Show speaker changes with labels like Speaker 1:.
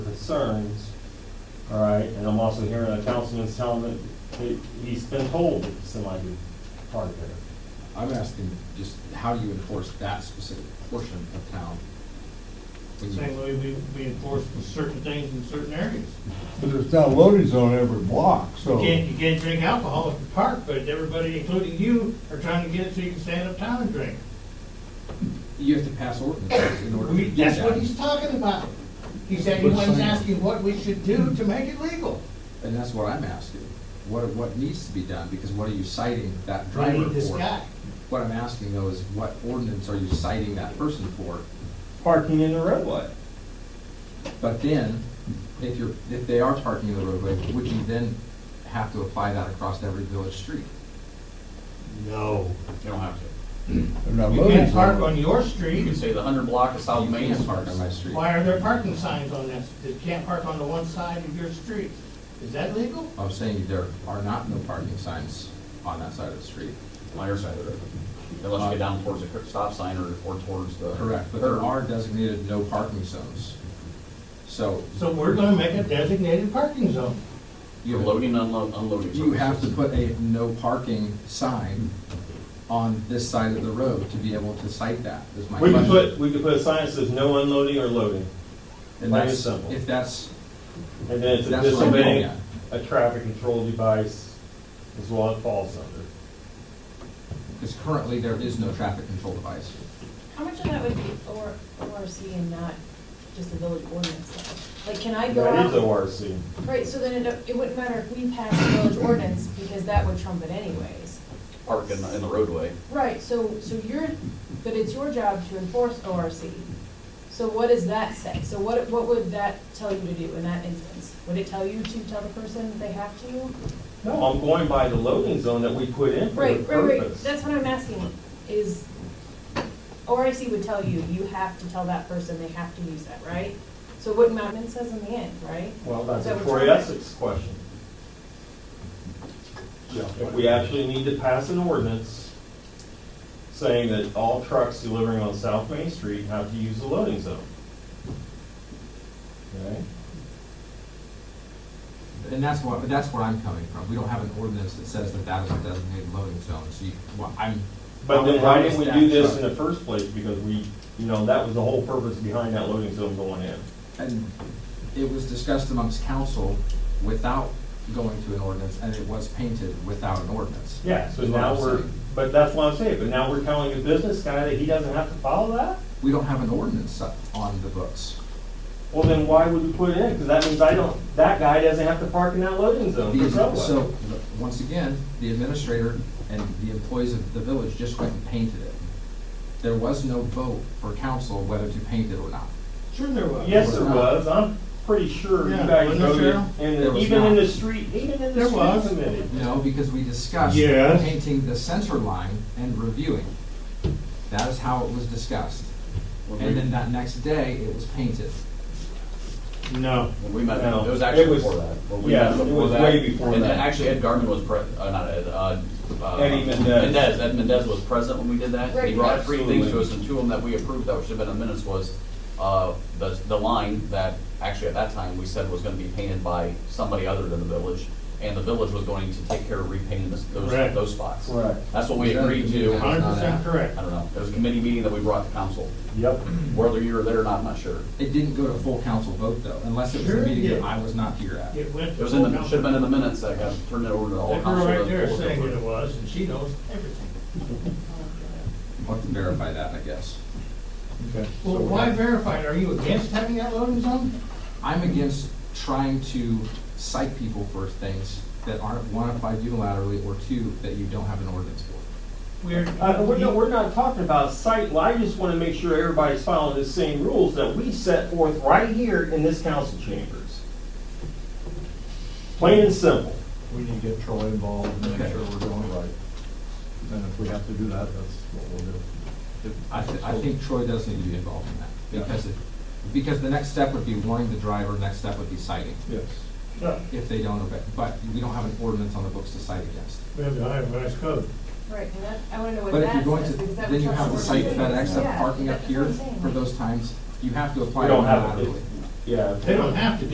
Speaker 1: concerns, all right, and I'm also hearing a councilman's telling that that he's been told that somebody could park there.
Speaker 2: I'm asking just how do you enforce that specific portion of town? When you-
Speaker 3: Same way we, we enforce certain things in certain areas.
Speaker 4: But there's not loading zone every block,
Speaker 3: You
Speaker 4: so.
Speaker 3: can't, you can't drink alcohol at the park, but everybody, including you, are trying to get it so you can stand uptown and drink.
Speaker 2: You have to pass ordinances in order to
Speaker 3: We,
Speaker 2: do
Speaker 3: that's what he's
Speaker 2: that.
Speaker 3: talking about. He said he
Speaker 2: But
Speaker 3: was
Speaker 2: some-
Speaker 3: asking what we should do to make it legal.
Speaker 2: And that's what I'm asking. What, what needs to be done? Because what are you citing that
Speaker 3: We
Speaker 2: driver
Speaker 3: need this
Speaker 2: for?
Speaker 3: guy.
Speaker 2: What I'm asking though is what ordinance are you citing that person for?
Speaker 1: Parking in the roadway.
Speaker 2: But then, if you're, if they are parking in the roadway, would you then have to apply that across every village street?
Speaker 3: No.
Speaker 5: They don't have to.
Speaker 4: There's not
Speaker 3: You
Speaker 4: loading
Speaker 3: can't park
Speaker 4: zone.
Speaker 3: on your
Speaker 5: You can
Speaker 3: street.
Speaker 5: say the hundred block of South
Speaker 2: You
Speaker 5: Main
Speaker 2: can't
Speaker 5: is
Speaker 2: park on my street.
Speaker 3: Why are there parking signs on that? You can't park on the one side of your street. Is that legal?
Speaker 2: I'm saying there are not no parking signs on that side of the street.
Speaker 5: on your side of the road. Unless you get down towards the cur- stop sign or, or towards the.
Speaker 2: Correct, but there are designated no parking zones. So
Speaker 3: So we're gonna make a designated parking zone.
Speaker 5: You have loading, unload, unloading.
Speaker 2: you have to
Speaker 5: purposes.
Speaker 2: put a no parking sign on this side of the road to be able to cite that, is my
Speaker 1: We could put,
Speaker 2: question.
Speaker 1: we could put a sign that says no unloading or loading,
Speaker 2: And
Speaker 1: plain and
Speaker 2: that's-
Speaker 1: simple.
Speaker 2: If that's,
Speaker 1: and then it's a
Speaker 2: that's what I'm getting
Speaker 1: disobeying
Speaker 2: at.
Speaker 1: a traffic control device is what it falls under.
Speaker 2: Because currently there is no traffic control device.
Speaker 6: How much of that would be OR ORC and not just the village ordinance? though? Like, can I go
Speaker 1: That is
Speaker 6: out?
Speaker 1: ORC.
Speaker 6: Right, so then it, don't- it wouldn't matter if we passed the village ordinance, because that would trump it anyways.
Speaker 5: Park in, the- in the roadway.
Speaker 6: Right, so, so you're, but it's your job to enforce ORC. So what does that say? So what, what would that tell you to do in that instance? Would it tell you to tell the person they have to?
Speaker 1: No, I'm going by the loading zone that we put in for the
Speaker 6: Right, right, right,
Speaker 1: purpose.
Speaker 6: that's what I'm asking, is, ORC would tell you, you have to tell that person they have to use that, right? So what Mountain says in the end, right?
Speaker 1: Well, that's
Speaker 6: So
Speaker 1: a
Speaker 6: we're
Speaker 1: Troy
Speaker 6: trying-
Speaker 1: Essex question. If we actually need to pass an ordinance saying that all trucks delivering on South Main Street have to use the loading zone. Okay?
Speaker 2: And that's what, that's where I'm coming from. We don't have an ordinance that says that that is a designated loading zone, so you, well, I'm.
Speaker 1: But then why didn't we do this in
Speaker 2: And
Speaker 1: the first place? Because we, you know, that was the whole purpose behind that loading zone going in.
Speaker 2: it was discussed amongst council without going to an ordinance, and it was painted without an ordinance.
Speaker 1: Yeah, so
Speaker 2: Is what
Speaker 1: now
Speaker 2: I'm
Speaker 1: we're,
Speaker 2: saying.
Speaker 1: but that's what I'm saying, but now we're telling a business guy that he doesn't have to follow that?
Speaker 2: We don't have an ordinance up on the books.
Speaker 1: Well, then why would we put it in? Because that means I don't, that guy doesn't have to park in that loading zone for
Speaker 2: The-
Speaker 1: Subway.
Speaker 2: So, once again, the administrator and the employees of the village just went and painted it. There was no vote for council whether to paint it or not.
Speaker 3: Sure there was.
Speaker 1: Yes, there was. I'm pretty sure you
Speaker 3: Yeah,
Speaker 1: guys
Speaker 3: wasn't there,
Speaker 1: voted,
Speaker 3: Cheryl?
Speaker 1: and
Speaker 2: There
Speaker 1: the-
Speaker 2: was
Speaker 1: even in
Speaker 2: not.
Speaker 1: the street, even in
Speaker 3: There
Speaker 1: the street
Speaker 3: was.
Speaker 1: committee.
Speaker 2: No, because we discussed
Speaker 3: Yes.
Speaker 2: painting the center line and reviewing. That is how it was discussed.
Speaker 5: When
Speaker 2: And
Speaker 5: we-
Speaker 2: then that next day, it was painted.
Speaker 3: No.
Speaker 5: When we met, it
Speaker 1: No,
Speaker 5: was
Speaker 1: it
Speaker 5: actually
Speaker 1: was-
Speaker 5: before that. When we
Speaker 1: yeah,
Speaker 5: met
Speaker 1: it
Speaker 5: before
Speaker 1: was
Speaker 5: that,
Speaker 1: way before
Speaker 5: and
Speaker 1: that.
Speaker 5: Actually, Ed Garman was pre, uh, not Ed, uh. uh,
Speaker 1: Eddie Mendez.
Speaker 5: Mendez, Ed Mendez was present when we did that. He
Speaker 6: Right.
Speaker 5: brought three things to
Speaker 1: Absolutely.
Speaker 5: us, and two of them that we approved that should have been in minutes was, uh, the, the line that, actually at that time, we said was gonna be painted by somebody other than the village, and the village was going to take care of repainting this- those,
Speaker 3: Correct.
Speaker 5: those spots.
Speaker 1: Correct.
Speaker 5: That's what we
Speaker 2: Yeah,
Speaker 5: agreed to.
Speaker 2: yeah.
Speaker 5: I
Speaker 3: Hundred percent correct.
Speaker 5: don't know. It was a committee meeting that we brought to council.
Speaker 1: Yep.
Speaker 5: Whether you were there or not, I'm not sure.
Speaker 2: It didn't go to full council vote though, unless it was
Speaker 3: Sure
Speaker 2: a
Speaker 3: it
Speaker 2: meeting
Speaker 3: did.
Speaker 2: that I was not here at.
Speaker 3: It went
Speaker 5: It
Speaker 3: to
Speaker 5: was in
Speaker 3: full
Speaker 5: the, should have been
Speaker 3: council.
Speaker 5: in the minutes that got turned it over to all
Speaker 3: That
Speaker 5: council.
Speaker 3: girl right
Speaker 5: to-
Speaker 3: there saying what it was, and she knows everything.
Speaker 2: I'll have to verify that, I guess.
Speaker 1: Okay.
Speaker 3: Well, why verify it? Are you against having that loading zone?
Speaker 2: I'm against trying to cite people for things that aren't, one, applied unilaterally, or two, that you don't have an ordinance for.
Speaker 3: We're.
Speaker 1: Uh, we're not, we're not talking about site, well, I just want to make sure everybody's following the same rules that we set forth right here in this council chambers. Plain and simple.
Speaker 7: We need to get Troy involved and make
Speaker 2: Okay.
Speaker 7: sure we're doing it right. And if we have to do that, that's what we'll do. If-
Speaker 2: I, th- I think Troy does need to be involved in
Speaker 7: Yeah.
Speaker 2: that, because it, because the next step would be warning the driver, next step would be citing,
Speaker 7: Yes.
Speaker 3: No,
Speaker 2: if they don't obey, but we don't have an ordinance on the books to cite against.
Speaker 3: we have the itemized code.
Speaker 6: Right, and that, I wanna know what
Speaker 2: But if you're
Speaker 6: that
Speaker 2: going
Speaker 6: says,
Speaker 2: to,
Speaker 6: because that
Speaker 2: then
Speaker 6: would
Speaker 2: you
Speaker 6: trump
Speaker 2: have to
Speaker 6: the
Speaker 2: cite
Speaker 6: ordinance.
Speaker 2: FedEx, that
Speaker 6: Yeah,
Speaker 2: parking up
Speaker 6: that's what
Speaker 2: here
Speaker 6: I'm saying.
Speaker 2: for those times, you have to apply
Speaker 1: We don't have it.
Speaker 2: unilaterally.
Speaker 1: Yeah.
Speaker 3: They don't have to